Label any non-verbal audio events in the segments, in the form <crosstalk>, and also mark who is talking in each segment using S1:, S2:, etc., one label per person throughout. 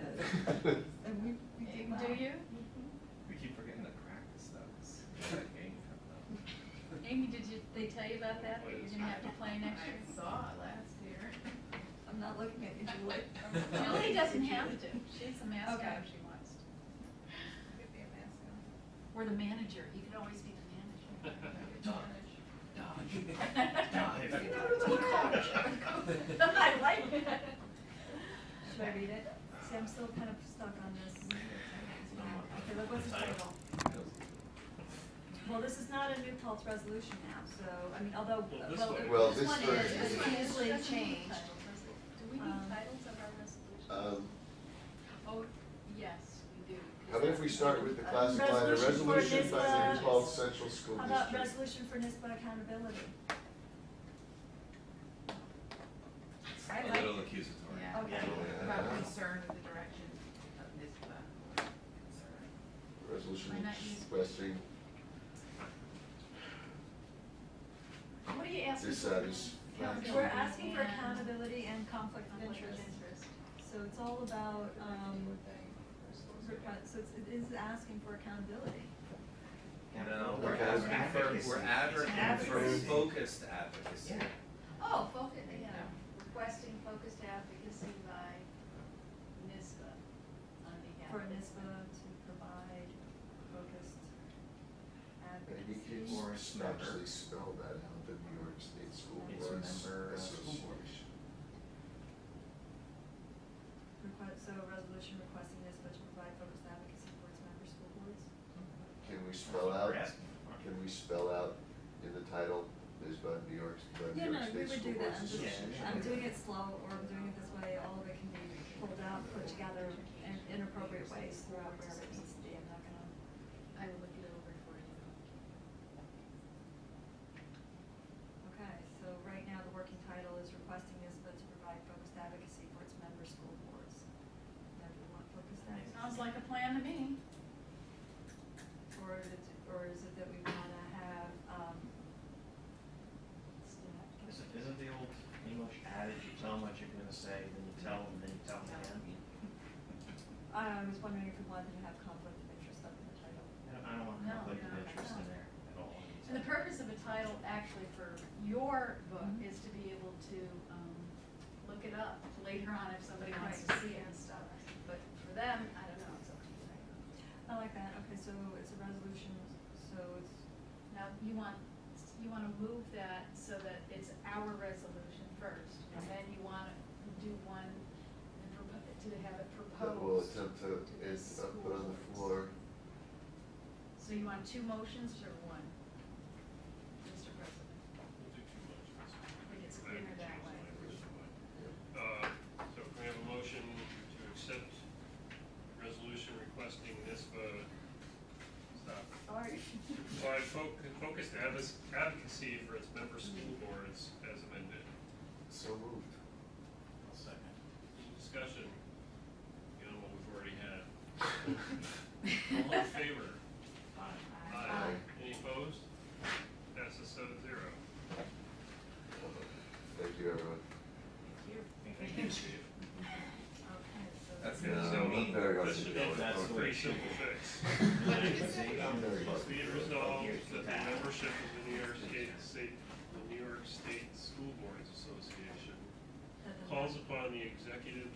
S1: And we, we did well.
S2: Do you?
S3: We keep forgetting to practice those. That game coming up.
S2: Amy, did you, they tell you about that, that you're gonna have to play next year?
S4: I saw it last year.
S1: I'm not looking at you, Julie.
S2: Julie doesn't have to, she's a mascot
S1: Okay.
S2: if she wants to.
S4: Could be a mascot.
S2: Or the manager, you could always be the manager.
S4: <laughs>
S3: Dive.
S4: You know, the coach.
S2: I like that.
S1: Should I read it? See, I'm still kind of stuck on this. Okay, look what's the title. Well, this is not a new Peltz resolution now, so, I mean, although,
S5: Well, this
S1: well,
S5: one-
S1: it-
S6: Well,
S1: this
S6: this
S1: one
S6: version
S1: is,
S6: is-
S1: this one
S2: This
S1: easily
S2: doesn't need
S1: changed.
S2: titles, does it? Do we
S1: Um,
S2: need titles of our resolutions?
S6: Um,
S2: Oh, yes, we do. 'cause
S6: How about if we
S2: that's-
S6: start with the
S2: Uh,
S6: classic line, a
S1: resolution for
S6: resolution by
S1: NISBA.
S6: the Humboldt Central School
S1: How about
S6: District?
S1: resolution for NISBA accountability?
S4: I
S3: A little
S4: like,
S3: accusatory.
S4: yeah,
S1: Okay.
S4: about concern with the direction of NISBA. Concern.
S6: Resolution
S2: Why not use-
S6: expressing
S2: What are you asking? for?
S6: dissatisfaction.
S1: We're asking for
S2: And-
S1: accountability and conflict of
S2: Conflict
S1: interest.
S2: of interest.
S1: So it's all about, um, requ- so it's, it is asking for accountability.
S3: No, we're
S6: Okay.
S3: advocating for, we're advocating for
S4: Advocacy.
S3: focused advocacy.
S4: Yeah.
S2: Oh, focus, yeah, requesting focused advocacy by NISBA on behalf.
S1: For
S2: of-
S1: NISBA to provide focused
S6: Maybe
S1: advocacy.
S6: you
S3: Or
S6: can s- actually
S3: member.
S6: spell that out, the New York State School
S3: It's a
S6: Boards
S3: member of school board.
S6: Association.
S1: Request, so a resolution requesting NISBA to provide focused advocacy for its member school boards?
S6: Can we
S5: That's
S6: spell
S5: what
S6: out,
S5: we're asking for.
S6: can we spell out in the title, NISBA, New York, the
S1: Yeah,
S6: New
S1: no,
S6: York
S1: we
S6: State
S1: would
S6: School
S1: do
S6: Boards
S1: that, I'm just,
S6: Association?
S1: I'm doing it slow, or I'm doing it this way, all of it can be pulled out, put together in inappropriate ways throughout wherever it needs to be, I'm not gonna.
S2: I will look it over for you.
S1: Okay, so right now, the working title is requesting NISBA to provide focused advocacy for its member school boards. Member want focused advocacy?
S2: Sounds like a plan to me.
S1: Or is it, or is it that we wanna have, um,
S5: Isn't isn't the old English adage, you tell them what you're gonna say, then you tell them, then you tell them again?
S1: I was wondering if we wanted to have conflict of interest up in the title.
S5: I don't, I don't want
S2: No,
S5: conflict of
S2: no,
S5: interest
S2: no.
S5: in there at all.
S2: And the purpose of a title actually for your book is to be able to, um, look it up later on if somebody wants to
S1: Right.
S2: see it and stuff. But for them, I don't know, it's up to you.
S1: I like that, okay, so it's a resolution, so it's,
S2: Now, you want, you wanna move that so that it's our resolution first, and then you wanna do one and propo- to have it proposed.
S6: That will attempt to,
S2: to the
S6: is, uh,
S2: school
S6: put on
S2: boards.
S6: the floor,
S2: So you want two motions or one? Mr. President,
S7: We'll do
S2: I think it's
S7: two motions.
S2: cleaner that way.
S7: Uh, So can we have a motion to accept resolution requesting NISBA, stop,
S1: sorry.
S7: provide fo- focused advo- advocacy for its member school
S2: Mm-hmm.
S7: boards as amended.
S6: so moved.
S5: I'll second.
S7: Any discussion, you know, what we've already
S2: <laughs>
S7: had. All in favor?
S5: Aye.
S7: Aye. Any opposed? Passes seven zero.
S6: Thank you, everyone.
S7: Thank you, Uh, Steve.
S1: <laughs> Okay, so.
S3: That's
S6: No,
S3: so
S6: not
S3: mean.
S6: very much
S7: That should
S6: to do
S7: be
S5: That's
S7: a
S5: the
S7: pretty
S5: way.
S7: simple
S6: <laughs>
S7: fix. Be it resolved that the membership of the New York State, State, the New York State School Boards Association
S1: that the-
S7: calls upon the executive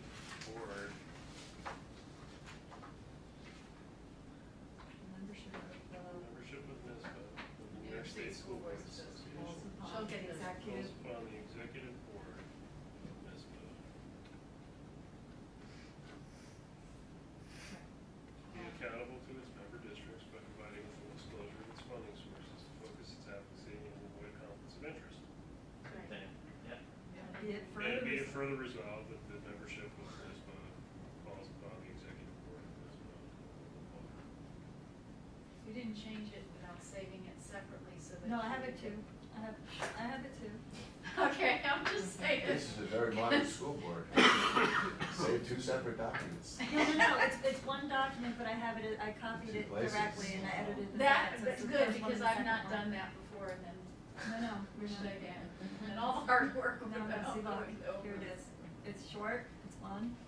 S7: board
S1: the Membership of uh, the
S7: membership of NISBA, of the New York State School Boards Association,
S1: Walls
S2: She'll
S1: of
S2: get this.
S1: Executive
S7: calls upon the executive board of NISBA to be accountable to its member districts by providing full disclosure of its funding sources to focus its advocacy and avoid conflicts of interest.
S5: Then, yeah.
S1: uh, Be it
S7: And be it
S1: further,
S7: further resolved that the membership of NISBA calls upon the executive board of uh, NISBA.
S2: You didn't change it without saving it separately so that.
S1: no, I
S2: you-
S1: have it too, I have, I have it too.
S2: <laughs> Okay, I'm just saying.
S6: This is a very
S2: <laughs>
S6: modern school board. <coughs> Save two separate
S1: <laughs>
S6: documents.
S1: No, no, no, it's, it's one document, but I have it, I copied it
S6: Places.
S1: directly and I edited the
S2: That,
S1: dots, so it's
S2: that's
S1: the
S2: good,
S1: first one
S2: because
S1: and the
S2: I've not
S1: second one.
S2: done that before and then,
S1: No,
S2: <laughs>
S1: no, we're
S2: where should
S1: not. <laughs>
S2: I get? And all the hard work
S1: No,
S2: without
S1: no, see,
S2: going
S1: look, here it
S2: over.
S1: is. It's short, it's one,